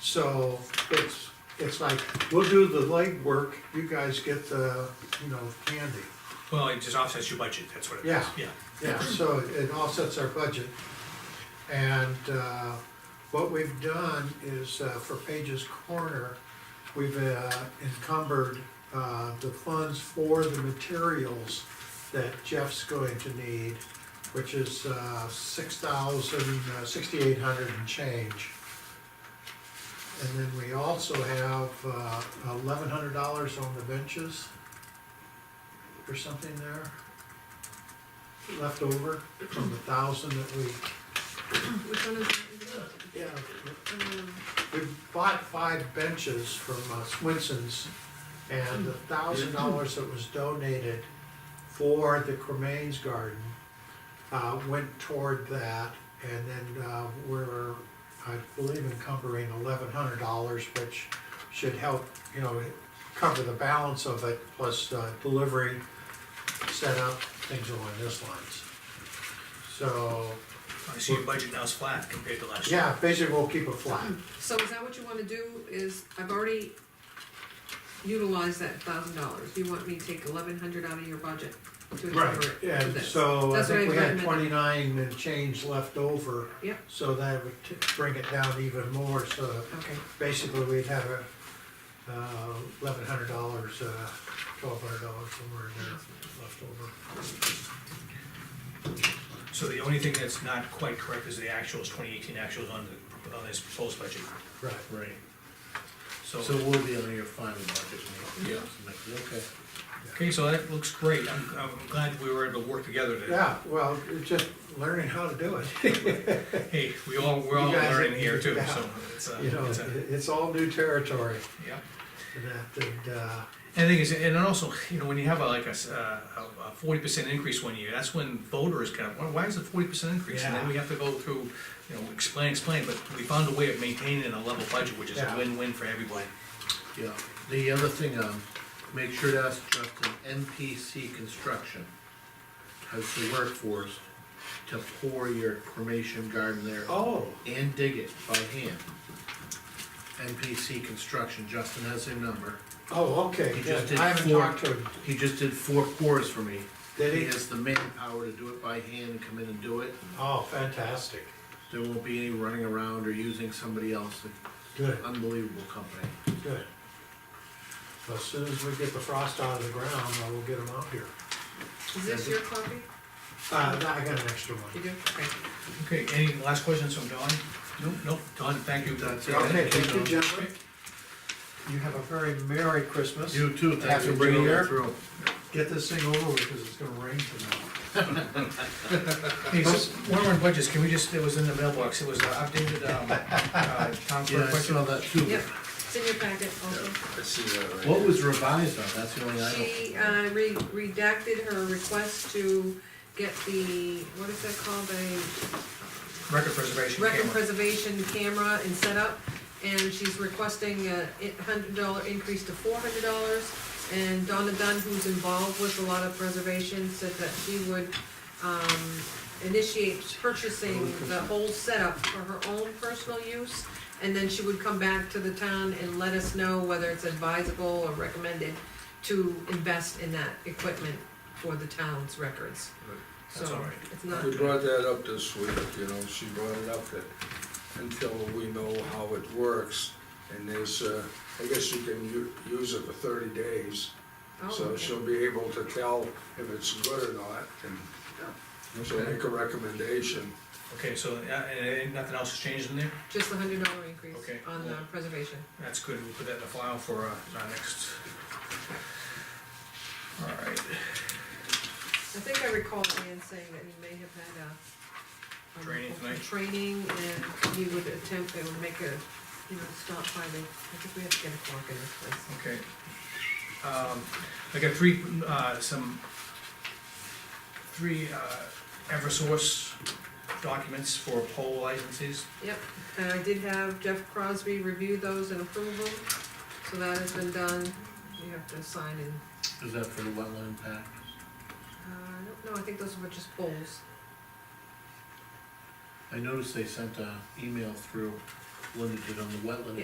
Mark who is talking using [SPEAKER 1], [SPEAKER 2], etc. [SPEAKER 1] So it's, it's like, we'll do the legwork, you guys get the, you know, candy.
[SPEAKER 2] Well, it just offsets your budget, that's what it is.
[SPEAKER 1] Yeah.
[SPEAKER 2] Yeah,
[SPEAKER 1] Yeah, so it offsets our budget. And uh, what we've done is uh, for Page's Corner, we've uh, encumbered uh, the funds for the materials that Jeff's going to need, which is uh, six thousand, uh, sixty-eight hundred and change. And then we also have uh, eleven hundred dollars on the benches or something there left over from the thousand that we,
[SPEAKER 3] Which one is it?
[SPEAKER 1] yeah,
[SPEAKER 3] Um,
[SPEAKER 1] we bought five benches from uh, Swinson's, and the thousand dollars that was donated for the cremains garden uh, went toward that, and then uh, we're, I believe encumbering eleven hundred dollars, which should help, you know, cover the balance of it, plus uh, delivery, setup, things along those lines. So,
[SPEAKER 2] I see your budget now is flat compared to last year.
[SPEAKER 1] yeah, basically we'll keep it flat.
[SPEAKER 3] So is that what you wanna do, is, I've already utilized that thousand dollars, you want me to take eleven hundred out of your budget to
[SPEAKER 1] Right,
[SPEAKER 3] cover it? for
[SPEAKER 1] and
[SPEAKER 3] this?
[SPEAKER 1] so I
[SPEAKER 3] That's what
[SPEAKER 1] think
[SPEAKER 3] I
[SPEAKER 1] we had
[SPEAKER 3] recommended.
[SPEAKER 1] twenty-nine and change left over,
[SPEAKER 3] Yep,
[SPEAKER 1] so that would t- bring it down even more, so
[SPEAKER 3] okay,
[SPEAKER 1] basically we'd have a, uh, eleven hundred dollars, uh, twelve hundred dollars somewhere in there left over.
[SPEAKER 2] So the only thing that's not quite correct is the actuals, twenty eighteen actuals on the, on this proposed budget.
[SPEAKER 1] Right,
[SPEAKER 4] Right,
[SPEAKER 2] So,
[SPEAKER 4] so we'll be on your final budget meeting.
[SPEAKER 2] Yeah.
[SPEAKER 4] Yeah. Okay.
[SPEAKER 2] okay, so that looks great. I'm, I'm glad we were able to work together today.
[SPEAKER 1] yeah, well, it's just learning how to do it,
[SPEAKER 2] Hey, we all, we're all
[SPEAKER 1] You guys-
[SPEAKER 2] learning here too,
[SPEAKER 1] yeah.
[SPEAKER 2] so it's, uh,
[SPEAKER 1] you know,
[SPEAKER 2] it's
[SPEAKER 1] it-
[SPEAKER 2] a,
[SPEAKER 1] it's all new territory,
[SPEAKER 2] yeah.
[SPEAKER 1] and that, and, uh,
[SPEAKER 2] And the thing is, and also, you know, when you have a, like a, s- uh, a forty percent increase one year, that's when voters kind of, "Why- why is it forty percent increase? And then
[SPEAKER 1] Yeah.
[SPEAKER 2] we have to go through, you know, explain, explain, but we found a way of maintaining a level budget, which is a
[SPEAKER 1] Yeah.
[SPEAKER 2] win-win for everybody.
[SPEAKER 4] Yeah, the other thing, um, make sure to ask Justin, NPC Construction has the workforce to pour your cremation garden there
[SPEAKER 1] oh,
[SPEAKER 4] and dig it by hand. NPC Construction, Justin has their number,
[SPEAKER 1] oh, okay,
[SPEAKER 4] He
[SPEAKER 1] yeah,
[SPEAKER 4] just did
[SPEAKER 1] I haven't
[SPEAKER 4] four.
[SPEAKER 1] talked to him,
[SPEAKER 4] he just did four pours for me.
[SPEAKER 1] Did he?
[SPEAKER 4] has the manpower to do it by hand and come in and do it,
[SPEAKER 1] oh, fantastic,
[SPEAKER 4] there won't be any running around or using somebody else,
[SPEAKER 1] good.
[SPEAKER 4] unbelievable company.
[SPEAKER 1] Good. So As soon as we get the frost out of the ground, I will get them out here.
[SPEAKER 3] is this your copy?
[SPEAKER 1] Uh, no, I got an extra
[SPEAKER 3] You
[SPEAKER 1] one.
[SPEAKER 3] do, okay.
[SPEAKER 2] Okay, any last questions from Don? Nope. Nope, Don, thank you.
[SPEAKER 4] That's it.
[SPEAKER 1] Okay, thank you, gentlemen. You have a very Merry Christmas.
[SPEAKER 4] You too, thanks
[SPEAKER 1] Happy
[SPEAKER 4] for
[SPEAKER 1] New
[SPEAKER 4] bringing
[SPEAKER 1] Year.
[SPEAKER 4] it through.
[SPEAKER 1] Get this thing over with, because it's gonna rain tomorrow.
[SPEAKER 2] Hey, so one of our budgets, can we just, it was in the mailbox, it was uh, updated, um, uh, town
[SPEAKER 4] Yeah,
[SPEAKER 2] clerk
[SPEAKER 4] I
[SPEAKER 2] budget.
[SPEAKER 4] saw that too.
[SPEAKER 3] Yep, it's in your packet also.
[SPEAKER 5] I see that right.
[SPEAKER 4] What was revised on, that's the only item.
[SPEAKER 3] She, uh, re- redacted her request to get the, what is that called, a
[SPEAKER 2] record preservation
[SPEAKER 3] record
[SPEAKER 2] camera.
[SPEAKER 3] preservation camera and setup, and she's requesting a hundred dollar increase to four hundred dollars. And Donna Dunn, who's involved with a lot of preservation, said that she would, um, initiate purchasing the whole setup for her own personal use. And then she would come back to the town and let us know whether it's advisable or recommended to invest in that equipment for the town's records.
[SPEAKER 5] Right.
[SPEAKER 2] That's all right.
[SPEAKER 3] So, it's not.
[SPEAKER 5] We brought that up this week, you know, she brought it up that until we know how it works, and there's, uh, I guess you can u- use it for thirty days,
[SPEAKER 3] Oh,
[SPEAKER 5] so
[SPEAKER 3] okay.
[SPEAKER 5] she'll be able to tell if it's good or not, and
[SPEAKER 3] Oh.
[SPEAKER 5] she'll
[SPEAKER 4] Okay.
[SPEAKER 5] make a recommendation.
[SPEAKER 2] Okay, so, uh, and, and nothing else has changed in there?
[SPEAKER 3] Just the hundred dollar increase
[SPEAKER 2] Okay.
[SPEAKER 3] on the preservation.
[SPEAKER 2] That's good, we'll put that in the file for, uh, our next. All right.
[SPEAKER 3] I think I recall Ian saying that he may have had a. um,
[SPEAKER 2] Training tonight?
[SPEAKER 3] Training and he would attempt, they would make a, you know, stop by the, I think we have to get a clock in this place.
[SPEAKER 2] Okay. Um, I got three, uh, some, three, uh, Eversource documents for poll licenses.
[SPEAKER 3] Yep, and I did have Jeff Crosby review those and approve them, so that has been done. You have to sign in,
[SPEAKER 4] Is that for the wetland pack?
[SPEAKER 3] uh, I don't know, I think those were just polls.
[SPEAKER 4] I noticed they sent a email through, Linda did on the wetland